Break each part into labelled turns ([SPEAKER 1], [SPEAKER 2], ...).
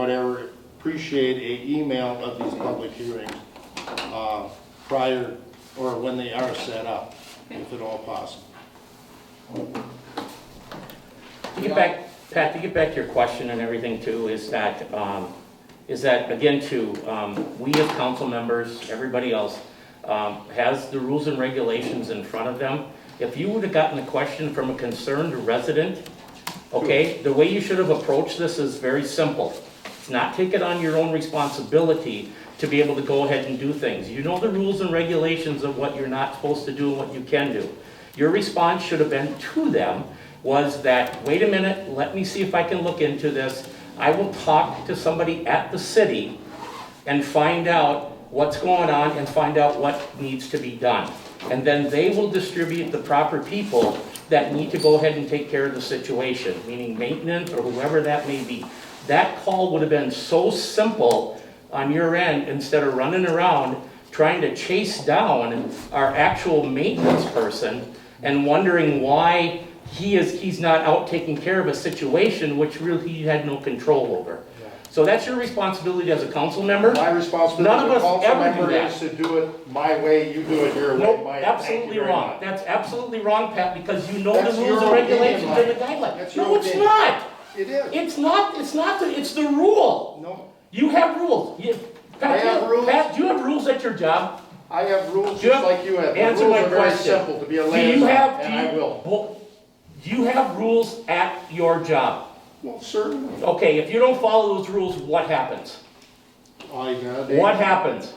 [SPEAKER 1] whatever, appreciate a email of these public hearings uh, prior, or when they are set up, if at all possible.
[SPEAKER 2] To get back, Pat, to get back to your question and everything too, is that, um, is that, again, too, um, we as council members, everybody else, um, has the rules and regulations in front of them. If you would have gotten a question from a concerned resident, okay, the way you should have approached this is very simple. It's not take it on your own responsibility to be able to go ahead and do things. You know the rules and regulations of what you're not supposed to do and what you can do. Your response should have been to them was that, wait a minute, let me see if I can look into this. I will talk to somebody at the city and find out what's going on and find out what needs to be done. And then they will distribute the proper people that need to go ahead and take care of the situation, meaning maintenance or whoever that may be. That call would have been so simple on your end, instead of running around trying to chase down our actual maintenance person and wondering why he is, he's not out taking care of a situation which really he had no control over. So that's your responsibility as a council member.
[SPEAKER 1] My
[SPEAKER 2] None
[SPEAKER 1] responsibility
[SPEAKER 2] of
[SPEAKER 1] as a
[SPEAKER 2] us
[SPEAKER 1] council
[SPEAKER 2] ever do
[SPEAKER 1] member
[SPEAKER 2] that.
[SPEAKER 1] is to do it my way, you do it your way.
[SPEAKER 2] Nope,
[SPEAKER 1] my- thank
[SPEAKER 2] absolutely
[SPEAKER 1] you very
[SPEAKER 2] wrong.
[SPEAKER 1] much.
[SPEAKER 2] That's absolutely wrong, Pat, because you know
[SPEAKER 1] That's
[SPEAKER 2] the
[SPEAKER 1] your
[SPEAKER 2] rules and
[SPEAKER 1] opinion,
[SPEAKER 2] regulations and the
[SPEAKER 1] Mike.
[SPEAKER 2] guidelines.
[SPEAKER 1] That's your
[SPEAKER 2] No, it's
[SPEAKER 1] opinion.
[SPEAKER 2] not.
[SPEAKER 1] It is.
[SPEAKER 2] It's not, it's not, the- it's the rule.
[SPEAKER 1] No,
[SPEAKER 2] You have rules. You-
[SPEAKER 1] I
[SPEAKER 2] Pat,
[SPEAKER 1] have
[SPEAKER 2] you-
[SPEAKER 1] rules?
[SPEAKER 2] Pat, do you have rules at your job?
[SPEAKER 1] I have rules
[SPEAKER 2] Do you
[SPEAKER 1] just
[SPEAKER 2] have-
[SPEAKER 1] like you have. The
[SPEAKER 2] Answer my
[SPEAKER 1] Rules are very
[SPEAKER 2] question.
[SPEAKER 1] simple, to be a
[SPEAKER 2] Do you
[SPEAKER 1] landlord,
[SPEAKER 2] have- do
[SPEAKER 1] and I
[SPEAKER 2] you-
[SPEAKER 1] will.
[SPEAKER 2] well, Do you have rules at your job?
[SPEAKER 1] Well, certainly.
[SPEAKER 2] Okay, if you don't follow those rules, what happens?
[SPEAKER 1] I got it.
[SPEAKER 2] What happens?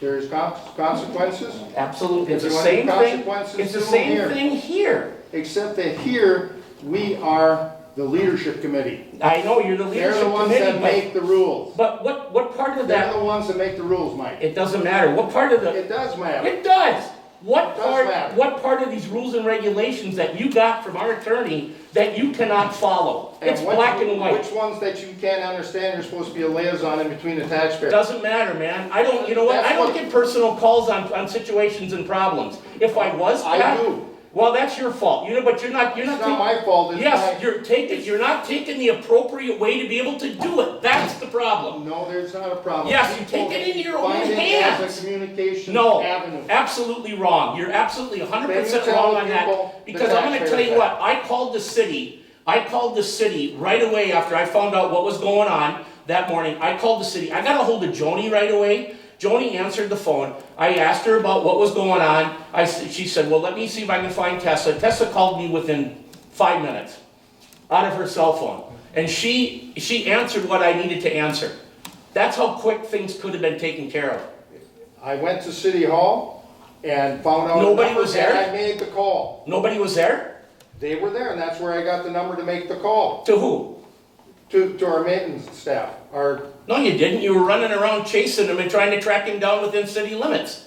[SPEAKER 1] There's con- consequences,
[SPEAKER 2] Absolutely, it's the
[SPEAKER 1] If you want the
[SPEAKER 2] same thing,
[SPEAKER 1] consequences,
[SPEAKER 2] it's the
[SPEAKER 1] do them
[SPEAKER 2] same
[SPEAKER 1] here.
[SPEAKER 2] thing here.
[SPEAKER 1] except that here, we are the leadership committee.
[SPEAKER 2] I know, you're the
[SPEAKER 1] They're the
[SPEAKER 2] leadership
[SPEAKER 1] ones that
[SPEAKER 2] committee,
[SPEAKER 1] make the rules.
[SPEAKER 2] but, but what, what part of
[SPEAKER 1] They're
[SPEAKER 2] that,
[SPEAKER 1] the ones that make the rules, Mike.
[SPEAKER 2] it doesn't matter, what part of the,
[SPEAKER 1] It does matter.
[SPEAKER 2] it does. What
[SPEAKER 1] It does
[SPEAKER 2] part,
[SPEAKER 1] matter.
[SPEAKER 2] what part of these rules and regulations that you got from our attorney that you cannot follow? It's
[SPEAKER 1] what
[SPEAKER 2] black
[SPEAKER 1] you-
[SPEAKER 2] and white.
[SPEAKER 1] Which ones that you can't understand, you're supposed to be a liaison in between the taxpayers.
[SPEAKER 2] Doesn't matter, man. I don't, you know what? I don't get personal calls on, on situations and problems. If I was,
[SPEAKER 1] I
[SPEAKER 2] Pat,
[SPEAKER 1] do.
[SPEAKER 2] well, that's your fault. You know, but you're not, you're
[SPEAKER 1] It's
[SPEAKER 2] not.
[SPEAKER 1] not
[SPEAKER 2] taking-
[SPEAKER 1] my fault, it's
[SPEAKER 2] Yes,
[SPEAKER 1] my,
[SPEAKER 2] you're taking, you're not taking the appropriate way to be able to do it. That's the problem.
[SPEAKER 1] no, there's not a problem.
[SPEAKER 2] Yes, you
[SPEAKER 1] People
[SPEAKER 2] take it into your own
[SPEAKER 1] find it as
[SPEAKER 2] hands.
[SPEAKER 1] a communication
[SPEAKER 2] No,
[SPEAKER 1] avenue.
[SPEAKER 2] absolutely wrong. You're absolutely hundred percent
[SPEAKER 1] Then you
[SPEAKER 2] wrong
[SPEAKER 1] tell
[SPEAKER 2] on
[SPEAKER 1] people
[SPEAKER 2] that.
[SPEAKER 1] the
[SPEAKER 2] Because I'm gonna
[SPEAKER 1] taxpayers
[SPEAKER 2] tell you
[SPEAKER 1] that.
[SPEAKER 2] what, I called the city, I called the city right away after I found out what was going on that morning. I called the city, I got a hold of Joni right away. Joni answered the phone. I asked her about what was going on. I, s- she said, well, let me see if I can find Tessa. Tessa called me within five minutes out of her cell phone. And she, she answered what I needed to answer. That's how quick things could have been taken care of.
[SPEAKER 1] I went to City Hall and found out.
[SPEAKER 2] Nobody
[SPEAKER 1] numbers,
[SPEAKER 2] was there?
[SPEAKER 1] And I made the call.
[SPEAKER 2] Nobody was there?
[SPEAKER 1] They were there, and that's where I got the number to make the call,
[SPEAKER 2] To who?
[SPEAKER 1] to, to our maintenance staff, our
[SPEAKER 2] No, you didn't. You were running around chasing him and trying to track him down within city limits.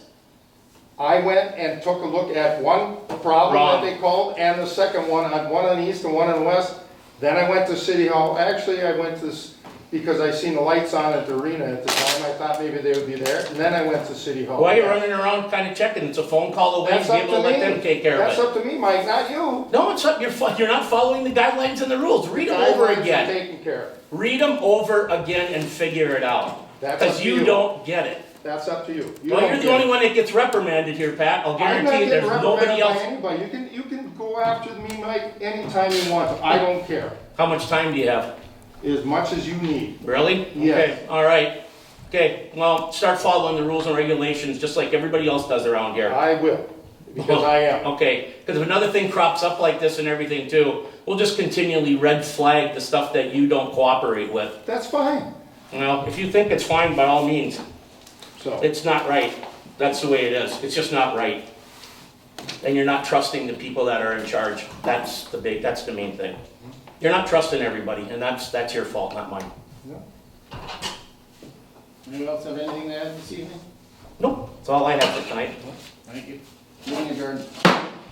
[SPEAKER 1] I went and took a look at one problem that
[SPEAKER 2] Wrong.
[SPEAKER 1] they called and the second one, on one on the east and one on the west. Then I went to City Hall. Actually, I went to, s- because I seen the lights on at the arena at the time. I thought maybe they would be there. And then I went to City Hall.
[SPEAKER 2] Why are you running around kind of checking? It's a phone call away.
[SPEAKER 1] That's
[SPEAKER 2] Be able
[SPEAKER 1] up
[SPEAKER 2] to
[SPEAKER 1] to
[SPEAKER 2] let them
[SPEAKER 1] me.
[SPEAKER 2] take care
[SPEAKER 1] That's
[SPEAKER 2] of it.
[SPEAKER 1] up to me, Mike, not you.
[SPEAKER 2] No, it's up. You're, fu- you're not following the guidelines and the rules. Read them over
[SPEAKER 1] Guidelines are
[SPEAKER 2] again.
[SPEAKER 1] Taken care of.
[SPEAKER 2] Read them over again and figure it out.
[SPEAKER 1] That's up
[SPEAKER 2] Because
[SPEAKER 1] to
[SPEAKER 2] you
[SPEAKER 1] you.
[SPEAKER 2] don't get it.
[SPEAKER 1] That's up to you. You
[SPEAKER 2] Well,
[SPEAKER 1] don't
[SPEAKER 2] you're the
[SPEAKER 1] care.
[SPEAKER 2] only one that gets reprimanded here, Pat. I'll
[SPEAKER 1] I'm not
[SPEAKER 2] guarantee you, there's
[SPEAKER 1] getting
[SPEAKER 2] nobody
[SPEAKER 1] reprimanded by
[SPEAKER 2] else.
[SPEAKER 1] anybody. You can, you can go after me, Mike, anytime you want. I don't care.
[SPEAKER 2] How much time do you have?
[SPEAKER 1] As much as you need.
[SPEAKER 2] Really?
[SPEAKER 1] Yes.
[SPEAKER 2] Okay, all right. Okay, well, start following the rules and regulations, just like everybody else does around here.
[SPEAKER 1] I will, because I am.
[SPEAKER 2] Okay, because if another thing crops up like this and everything too, we'll just continually red flag the stuff that you don't cooperate with.
[SPEAKER 1] That's fine.
[SPEAKER 2] You know, if you think it's fine, by all means,
[SPEAKER 1] So,
[SPEAKER 2] it's not right. That's the way it is. It's just not right. And you're not trusting the people that are in charge. That's the big, that's the main thing. You're not trusting everybody, and that's, that's your fault, not mine.
[SPEAKER 3] Anyone else have anything to add this evening?
[SPEAKER 2] Nope, that's all I have for tonight.
[SPEAKER 3] Thank you. Meeting adjourned.